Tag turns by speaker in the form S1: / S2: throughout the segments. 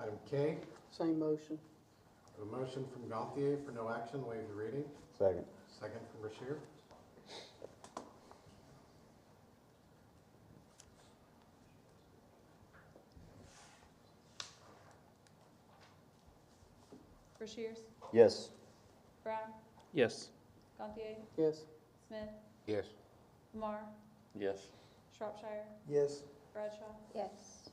S1: Item K,
S2: Same motion.
S1: a motion from Gauthier for no action, waive the reading.
S3: Second.
S1: Second from Bashir.
S4: Rushiers,
S3: Yes.
S4: Brown,
S5: Yes.
S4: Gantier,
S2: Yes.
S4: Smith,
S1: Yes.
S4: Lamar,
S5: Yes.
S4: Shropshire,
S3: Yes.
S4: Bradshaw.
S6: yes,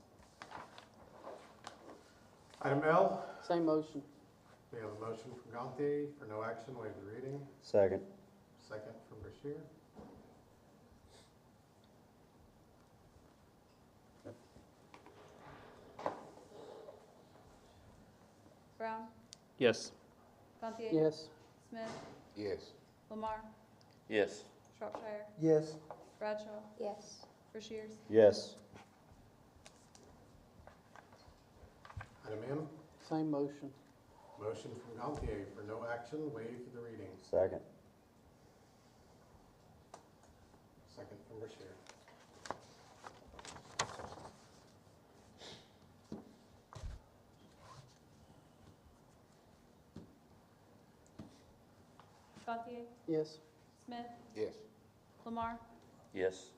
S1: Item L,
S2: Same motion.
S1: we have a motion from Gauthier for no action, waive the reading.
S3: Second.
S1: Second from Bashir.
S4: Brown,
S5: Yes.
S4: Gantier.
S2: Yes.
S4: Smith,
S1: Yes.
S4: Lamar,
S5: Yes.
S4: Shropshire,
S3: Yes.
S4: Bradshaw,
S6: yes,
S4: Rushiers,
S3: Yes.
S1: Item M,
S2: Same motion.
S1: motion from Gauthier for no action, waive the reading.
S3: Second.
S1: Second from Bashir.
S4: Gantier,
S2: Yes.
S4: Smith,
S1: Yes.
S4: Lamar,
S5: Yes.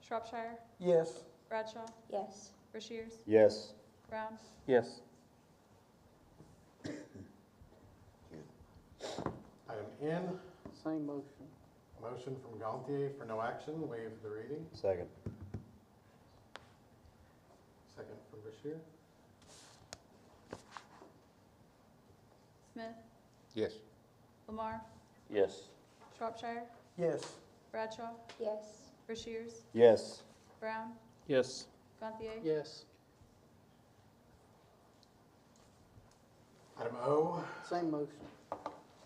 S4: Shropshire,
S3: Yes.
S4: Bradshaw,
S6: yes,
S4: Rushiers,
S3: Yes.
S4: Brown,
S5: Yes.
S1: Item N,
S2: Same motion.
S1: motion from Gauthier for no action, waive the reading.
S3: Second.
S1: Second from Bashir.
S4: Smith,
S1: Yes.
S4: Lamar,
S5: Yes.
S4: Shropshire,
S3: Yes.
S4: Bradshaw,
S6: yes,
S4: Rushiers,
S3: Yes.
S4: Brown,
S5: Yes.
S4: Gantier,
S2: Yes.
S1: Item O,
S2: Same motion.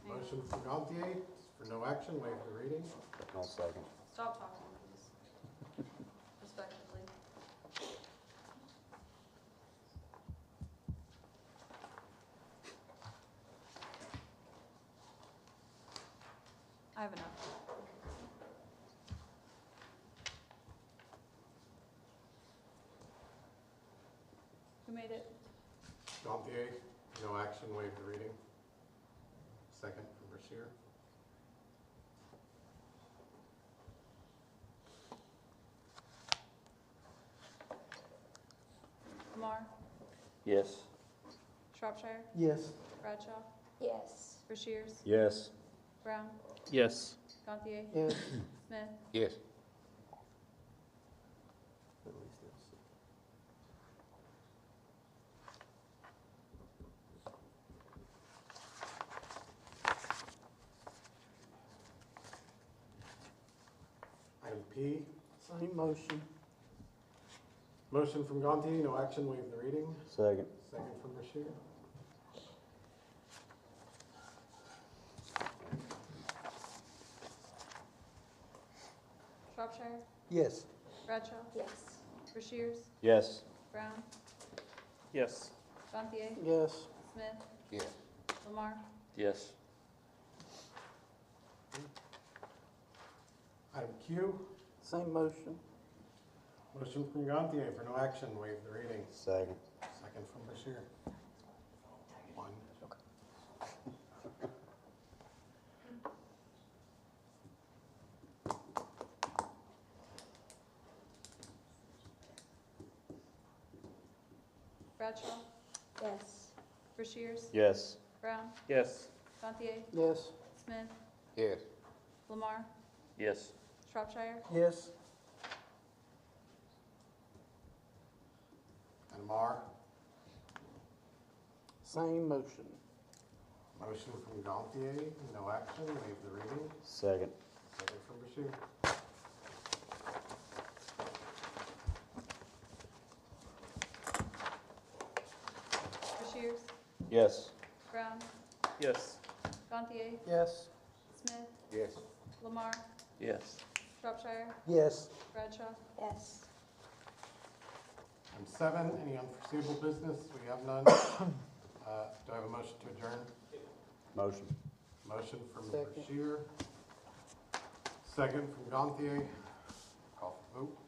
S1: Motion from Gantier for no action, waive the reading.
S3: No second.
S4: Stop talking, please. Respectfully. I have enough. Who made it?
S1: Gantier, no action, waive the reading. Second from Bashir.
S4: Lamar,
S5: Yes.
S4: Shropshire,
S2: Yes.
S4: Bradshaw,
S6: yes,
S4: Rushiers,
S3: Yes.
S4: Brown,
S5: Yes.
S4: Gantier,
S2: Yes.
S4: Smith,
S1: Yes. Item P,
S2: Same motion.
S1: motion from Gantier, no action, waive the reading.
S3: Second.
S1: Second from Bashir.
S4: Shropshire,
S3: Yes.
S4: Bradshaw,
S6: yes,
S4: Rushiers,
S3: Yes.
S4: Brown,
S5: Yes.
S4: Gantier,
S2: Yes.
S4: Smith,
S1: Yes.
S4: Lamar,
S5: Yes.
S1: Item Q,
S2: Same motion.
S1: motion from Gantier for no action, waive the reading.
S3: Second.
S1: Second from Bashir. One.
S4: Bradshaw,
S6: yes,
S4: Rushiers,
S3: Yes.
S4: Brown,
S5: Yes.
S4: Gantier,
S2: Yes.
S4: Smith,
S1: Yes.
S4: Lamar,
S5: Yes.
S4: Shropshire,
S2: Yes.
S1: Item R,
S2: Same motion.
S1: motion from Gantier, no action, waive the reading.
S3: Second.
S1: Second from Bashir.
S4: Rushiers,
S3: Yes.
S4: Brown,
S5: Yes.
S4: Gantier,
S2: Yes.
S4: Smith,
S1: Yes.
S4: Lamar,
S5: Yes.
S4: Shropshire,
S2: Yes.
S4: Bradshaw,
S6: yes,
S1: Item seven, any unforeseeable business? We have none. Uh, Do I have a motion to adjourn?
S3: Motion.
S1: Motion from
S2: Second.
S1: Bashir. Second from Gantier. Call for vote.